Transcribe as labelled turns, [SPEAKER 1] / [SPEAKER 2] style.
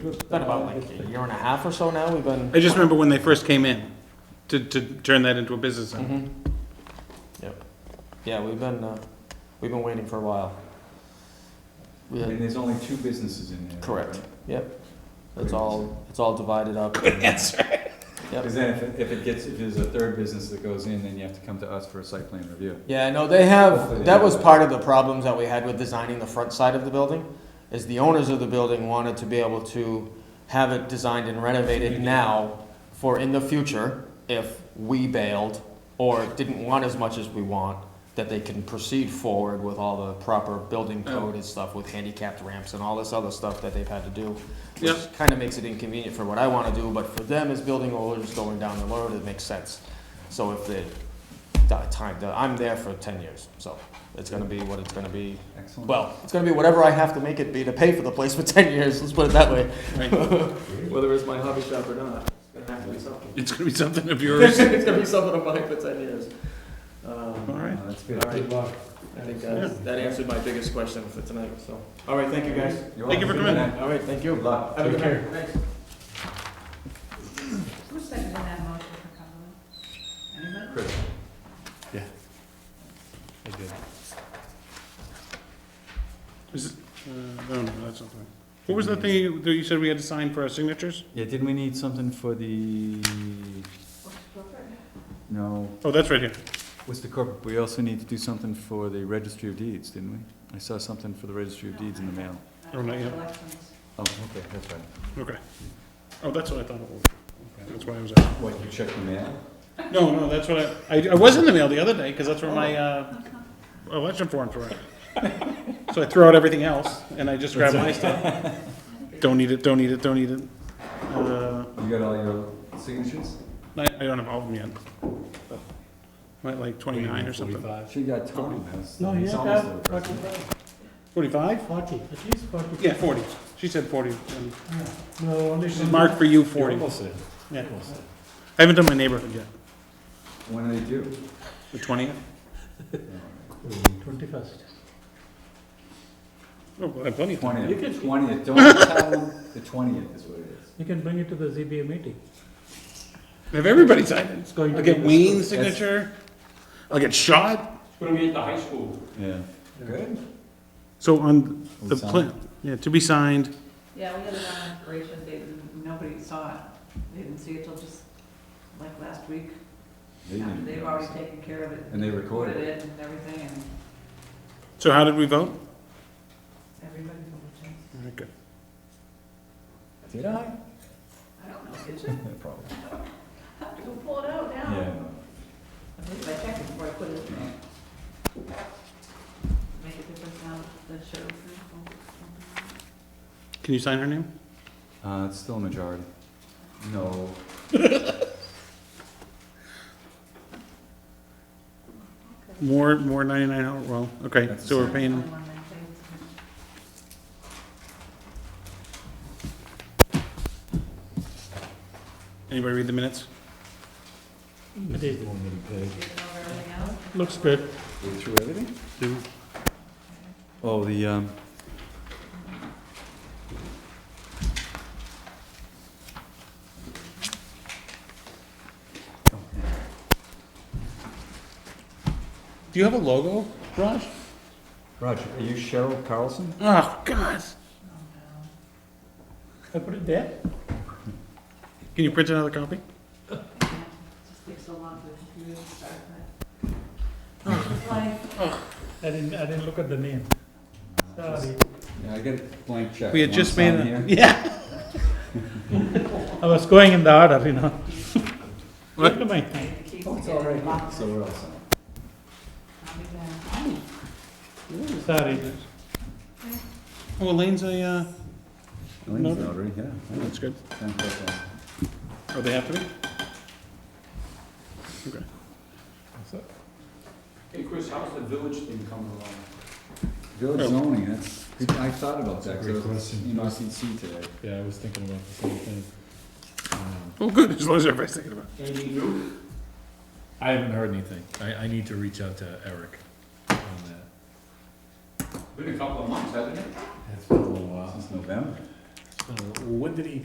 [SPEAKER 1] It's been about like a year and a half or so now, we've been.
[SPEAKER 2] I just remember when they first came in, to, to turn that into a business center.
[SPEAKER 1] Mhm. Mm-hmm. Yep. Yeah, we've been, uh, we've been waiting for a while. We
[SPEAKER 3] And
[SPEAKER 1] had-
[SPEAKER 3] there's only two businesses in there.
[SPEAKER 1] Correct.
[SPEAKER 3] right?
[SPEAKER 1] Yep. It's all, it's all divided up.
[SPEAKER 2] Answer.
[SPEAKER 1] Yep.
[SPEAKER 3] Cause then if, it- if it gets, if there's a third business that goes in, then you have to come to us for a site plan review.
[SPEAKER 1] Yeah, no, they have, that was part of the problems that we had with designing the front side of the building, is the owners of the building wanted to be able to have it designed and renovated now for in the future, if we bailed or didn't want as much as we want, that they can proceed forward with all the proper building code and stuff with handicapped ramps and all this other stuff that they've had to do.
[SPEAKER 2] Yep.
[SPEAKER 1] Which kinda makes it inconvenient for what I wanna do, but for them as building owners going down the road, it makes sense. So if they, that time, that I'm there for ten years, so it's gonna be what it's gonna be.
[SPEAKER 3] Excellent.
[SPEAKER 1] Well, it's gonna be whatever I have to make it be to pay for the place for ten years, let's put it that way.
[SPEAKER 4] Whether it's my hobby shop or not, it's gonna have to be something.
[SPEAKER 2] It's gonna be something of yours.
[SPEAKER 4] It's gonna be something I'm buying for ten years. Um,
[SPEAKER 2] All right.
[SPEAKER 3] Oh, That's
[SPEAKER 4] All
[SPEAKER 3] good.
[SPEAKER 4] right, I think uh, that, that answered my biggest question for tonight, so. All right, thank you, guys.
[SPEAKER 3] You're
[SPEAKER 2] Thank you for
[SPEAKER 3] welcome.
[SPEAKER 2] coming
[SPEAKER 1] All right, thank you.
[SPEAKER 3] Good luck.
[SPEAKER 4] Have a good night. Thanks.
[SPEAKER 5] Who seconded that motion for Cumberland? Anybody?
[SPEAKER 3] Chris,
[SPEAKER 2] Is it- uh, no, no, that's not fine. What was the thing you- that you said we had to sign for our signatures?
[SPEAKER 3] yeah, didn't we need something for the,
[SPEAKER 5] What's appropriate?
[SPEAKER 3] no,
[SPEAKER 2] Oh, that's right here.
[SPEAKER 3] what's the corporate, we also need to do something for the registry of deeds, didn't we? I saw something for the registry of deeds in the mail.
[SPEAKER 2] Oh, not yet.
[SPEAKER 5] Elections.
[SPEAKER 3] Oh, okay, that's right.
[SPEAKER 2] Okay. Oh, that's what I thought it was. Okay, That's why I was asking.
[SPEAKER 3] What, you checked the mail?
[SPEAKER 2] No, no, that's what I, I, I was in the mail the other day, because that's where my, uh, election forms were at. So I threw out everything else, and I just grabbed my stuff. Don't need it, don't need it, don't need it. Uh,
[SPEAKER 3] You got all your signatures?
[SPEAKER 2] I, I don't have all of them yet. Might like twenty-nine or something.
[SPEAKER 3] She got Tom. that's-
[SPEAKER 6] No,
[SPEAKER 3] he's
[SPEAKER 6] you have to
[SPEAKER 3] almost
[SPEAKER 6] have
[SPEAKER 3] the president.
[SPEAKER 6] forty-five,
[SPEAKER 2] Forty-five?
[SPEAKER 6] forty, at least forty.
[SPEAKER 2] Yeah, forty. She said forty. um,
[SPEAKER 6] No, only.
[SPEAKER 2] This is marked for you, forty. Yeah. I haven't done my neighborhood yet.
[SPEAKER 3] When do they do?
[SPEAKER 2] The twentieth?
[SPEAKER 6] Twenty-first.
[SPEAKER 2] Oh, I have plenty of time.
[SPEAKER 6] You
[SPEAKER 3] Twentieth,
[SPEAKER 6] can-
[SPEAKER 3] twentieth, don't tell them, the twentieth is what it is.
[SPEAKER 6] You can bring it to the ZBA meeting.
[SPEAKER 2] I Have everybody signed it.
[SPEAKER 6] It's going to
[SPEAKER 2] I'll
[SPEAKER 6] be.
[SPEAKER 2] get Wayne's signature. I'll get shot.
[SPEAKER 4] Gonna be at the high school.
[SPEAKER 3] Yeah. Good.
[SPEAKER 2] So on the
[SPEAKER 3] We signed.
[SPEAKER 2] plan, yeah, to be signed.
[SPEAKER 5] Yeah, we had it on inspiration, they, didn't- nobody saw it. They didn't see it till just like last week.
[SPEAKER 3] They didn't
[SPEAKER 5] They've
[SPEAKER 3] notice
[SPEAKER 5] already
[SPEAKER 3] it.
[SPEAKER 5] taken care of it.
[SPEAKER 3] And they recorded
[SPEAKER 5] Recorded it and everything and
[SPEAKER 2] So how did we vote?
[SPEAKER 5] everybody voted yes.
[SPEAKER 2] Okay.
[SPEAKER 3] Did I?
[SPEAKER 5] I don't know, did you?
[SPEAKER 3] Probably.
[SPEAKER 5] I have to go pull it out now.
[SPEAKER 3] Yeah.
[SPEAKER 5] I believe I checked it before I put it in there. Make a difference now, the sheriff.
[SPEAKER 2] Can you sign her name?
[SPEAKER 3] Uh, it's still a majority. No.
[SPEAKER 2] More, more ninety-nine, hour- well, okay, so we're paying, anybody read the minutes?
[SPEAKER 6] It is.
[SPEAKER 5] everything out?
[SPEAKER 6] Looks good.
[SPEAKER 3] We through everything?
[SPEAKER 2] Do-
[SPEAKER 3] Oh, the, um.
[SPEAKER 2] Do you have a logo, Raj?
[SPEAKER 3] Roger, are you Cheryl Carlson?
[SPEAKER 2] Oh, God.
[SPEAKER 6] I put it there.
[SPEAKER 2] Can you print another copy?
[SPEAKER 5] Just takes so long for the computer to start, but. It's like,
[SPEAKER 6] I didn't, I didn't look at the name. Sorry.
[SPEAKER 3] Yeah, I get a blank check.
[SPEAKER 2] We had
[SPEAKER 3] You
[SPEAKER 2] just made,
[SPEAKER 3] wanna sign
[SPEAKER 2] a-
[SPEAKER 3] here?
[SPEAKER 2] yeah.
[SPEAKER 6] I was going in the order, you know.
[SPEAKER 2] What?
[SPEAKER 6] Never mind.
[SPEAKER 5] it keeps
[SPEAKER 3] Oh, it's all
[SPEAKER 5] getting
[SPEAKER 3] right,
[SPEAKER 5] locked.
[SPEAKER 3] so we're all set.
[SPEAKER 5] I'll be back.
[SPEAKER 6] Sorry.
[SPEAKER 2] Oh, Elaine's a, uh,
[SPEAKER 3] Elaine's
[SPEAKER 2] Notary.
[SPEAKER 3] notary, yeah.
[SPEAKER 2] that's good.
[SPEAKER 3] Ten percent.
[SPEAKER 2] Oh, they have to be? Okay.
[SPEAKER 4] Hey, Chris, how's the village thing coming along?
[SPEAKER 3] Village zoning, that's, I thought about that,
[SPEAKER 7] Great
[SPEAKER 3] because
[SPEAKER 7] question.
[SPEAKER 3] in OCC today.
[SPEAKER 7] Yeah, I was thinking about the same thing. Um,
[SPEAKER 2] Oh, good, as long as everybody's thinking about
[SPEAKER 4] Anything new?
[SPEAKER 7] I haven't heard anything. I, I need to reach out to Eric on that.
[SPEAKER 4] Been a couple of months, hasn't it?
[SPEAKER 7] It's been a little while.
[SPEAKER 3] Since November.
[SPEAKER 7] Uh, When did he